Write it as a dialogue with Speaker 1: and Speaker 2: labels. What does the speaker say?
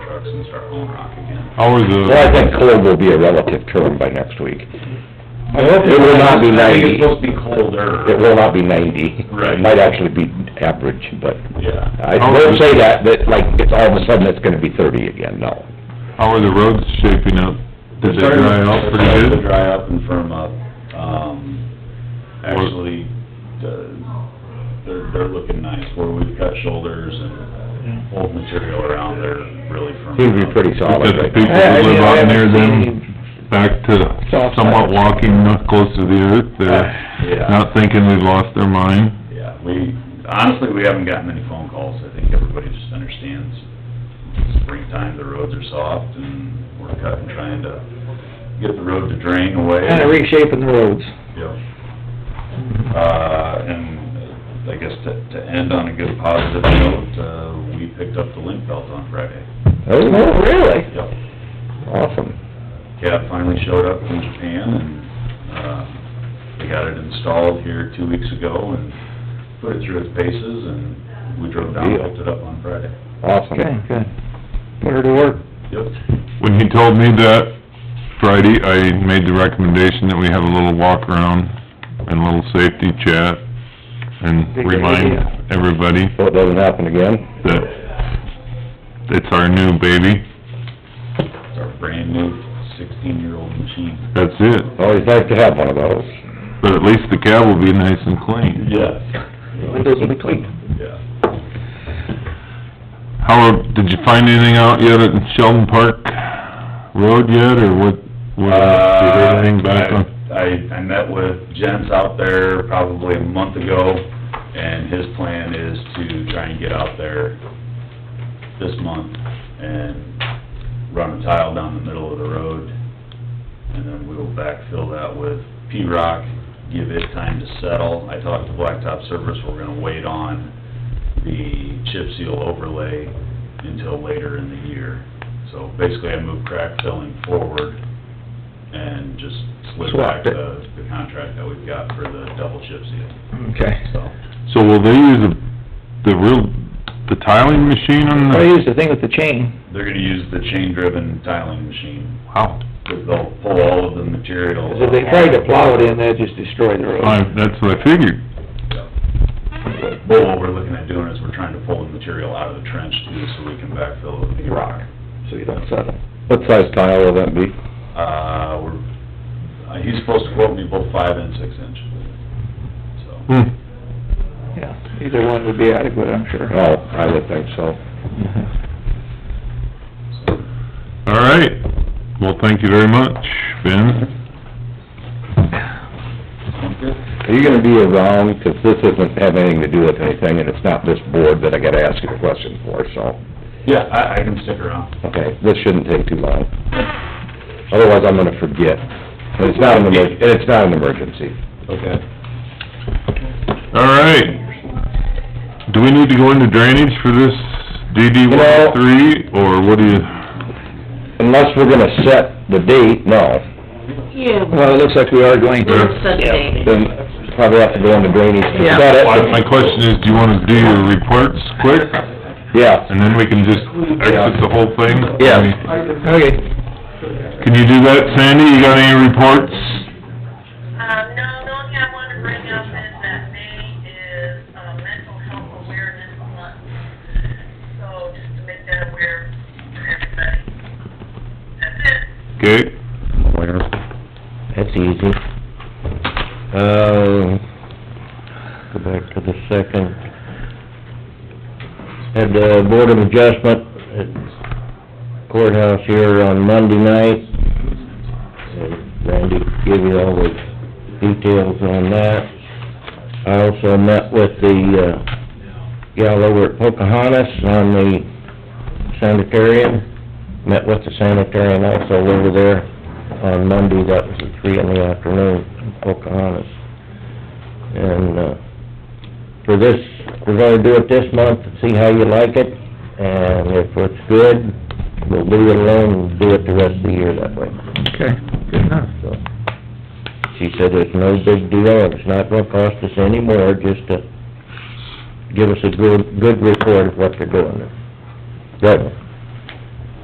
Speaker 1: trucks and start hauling rock again.
Speaker 2: How are the...
Speaker 3: Well, I think cold will be a relative term by next week. It will not be
Speaker 1: I think
Speaker 3: ninety.
Speaker 1: it's supposed to be colder.
Speaker 3: It will not be ninety.
Speaker 1: Right.
Speaker 3: It might actually be average, but
Speaker 1: Yeah.
Speaker 3: I
Speaker 4: Oh,
Speaker 3: won't say that, that like, it's all of a sudden it's gonna be thirty again, no.
Speaker 2: How are the roads shaping up? Did they
Speaker 1: Starting to-
Speaker 2: dry out
Speaker 1: starting to
Speaker 2: pretty good?
Speaker 1: Dry up and firm up. Um, actually, uh, they're, they're looking nice where we've cut shoulders and old material around there really firm.
Speaker 3: Seems
Speaker 1: up.
Speaker 3: to be pretty
Speaker 2: Did
Speaker 3: solid
Speaker 2: the
Speaker 3: right
Speaker 2: people
Speaker 3: now.
Speaker 2: who live out near them back to
Speaker 3: Soft
Speaker 2: somewhat
Speaker 3: side. Ah,
Speaker 2: walking not close to the earth? They're
Speaker 1: Yeah.
Speaker 2: not thinking we've lost their mind?
Speaker 1: Yeah, we, honestly, we haven't gotten many phone calls. I think everybody just understands springtime, the roads are soft and we're cutting, trying to get the road to drain away.
Speaker 4: Kinda reshaping the roads.
Speaker 1: Yep. Uh, and uh, I guess to, to end on a good positive note, uh, we picked up the link belt on Friday.
Speaker 4: Oh, really?
Speaker 1: Yep.
Speaker 3: Awesome.
Speaker 1: Cat finally showed up from Japan and, uh, we got it installed here two weeks ago and put it through its paces and we drove down and picked it up on Friday.
Speaker 3: Awesome.
Speaker 4: Okay, good. Put her to work.
Speaker 1: Yep.
Speaker 2: When he told me that Friday, I made the recommendation that we have a little walk around and a little safety chat and
Speaker 4: Big idea.
Speaker 2: remind everybody
Speaker 3: So it doesn't happen again?
Speaker 2: that it's our new baby.
Speaker 1: It's our brand new sixteen-year-old machine.
Speaker 2: That's it.
Speaker 3: Always nice to have one of those.
Speaker 2: But at least the cab will be nice and clean.
Speaker 1: Yes.
Speaker 4: Windows will be clean.
Speaker 1: Yeah.
Speaker 2: Howard, did you find anything out yet at Sheldon Park Road yet, or what, what, you heard anything back on?
Speaker 1: Uh, I, I met with Jens out there probably a month ago, and his plan is to try and get out there this month and run a tile down the middle of the road, and then we will backfill that with P-rock, give it time to settle. I talked to Blacktop Service, we're gonna wait on the chip seal overlay until later in the year. So basically, I moved crack filling forward and just slid back
Speaker 4: Swapped it.
Speaker 1: the, the contract that we've got for the double chip seal,
Speaker 4: Okay.
Speaker 1: so.
Speaker 2: So will they use the, the real, the tiling machine on
Speaker 4: I
Speaker 2: the,
Speaker 4: used the thing with the chain.
Speaker 1: They're gonna use the chain-driven tiling machine,
Speaker 2: wow,
Speaker 1: because they'll pull all of the material.
Speaker 4: 'Cause if they tried to plow it in, that'd just destroy the road.
Speaker 2: I, that's what I figured.
Speaker 1: Well, what we're looking at doing is we're trying to pull the material out of the trench too, so we can backfill with the rock.
Speaker 4: So you don't settle.
Speaker 3: What size tile will that be?
Speaker 1: Uh, we're, uh, he's supposed to quote me both five and six inch, so.
Speaker 2: Hmm.
Speaker 4: Yeah, either one would be adequate, I'm sure.
Speaker 3: Oh, I would think so.
Speaker 1: so.
Speaker 2: All right, well, thank you very much, Ben.
Speaker 1: Sound good?
Speaker 3: Are you gonna be around, 'cause this doesn't have anything to do with anything, and it's not this board that I gotta ask you a question for, so,
Speaker 1: Yeah, I, I can stick around.
Speaker 3: okay, this shouldn't take too long. Otherwise, I'm gonna forget. And it's not an emer, and it's not an emergency.
Speaker 1: Okay.
Speaker 2: All right, do we need to go into drainage for this DD
Speaker 3: No.
Speaker 2: one oh three, or what do you,
Speaker 3: Unless we're gonna set the date, no,
Speaker 5: Yeah, we
Speaker 4: Well, it looks like we are going
Speaker 5: will
Speaker 4: to.
Speaker 5: set a date.
Speaker 3: then probably have to go into drainage to
Speaker 4: Yeah.
Speaker 3: set
Speaker 2: Well, my
Speaker 3: it.
Speaker 2: question is, do you wanna do your reports quick,
Speaker 3: Yeah,
Speaker 2: and then we can just exit the whole thing?
Speaker 3: yeah.
Speaker 4: Okay.
Speaker 2: Can you do that, Sandy? You got any reports?
Speaker 6: Um, no, the only thing I wanted to bring up is that May is, uh, mental health awareness month. So just to make that aware for everybody. That's it.
Speaker 2: Okay.
Speaker 3: That's easy. Uh, go back to the second. Had the Board of Adjustment at courthouse here on Monday night. And Randy gave you all the details on that. I also met with the, uh, gal over at Pocahontas on the sanitarium. Met with the sanitarium also over there on Monday, that was at three in the afternoon, in Pocahontas. And, uh, for this, we're gonna do it this month, see how you like it, and if it's good, we'll leave it alone and do it the rest of the year that way,
Speaker 4: Okay, good enough.
Speaker 3: so. She said it's no big deal, and it's not gonna cost us any more, just to give us a good, good report of what they're doing. Good.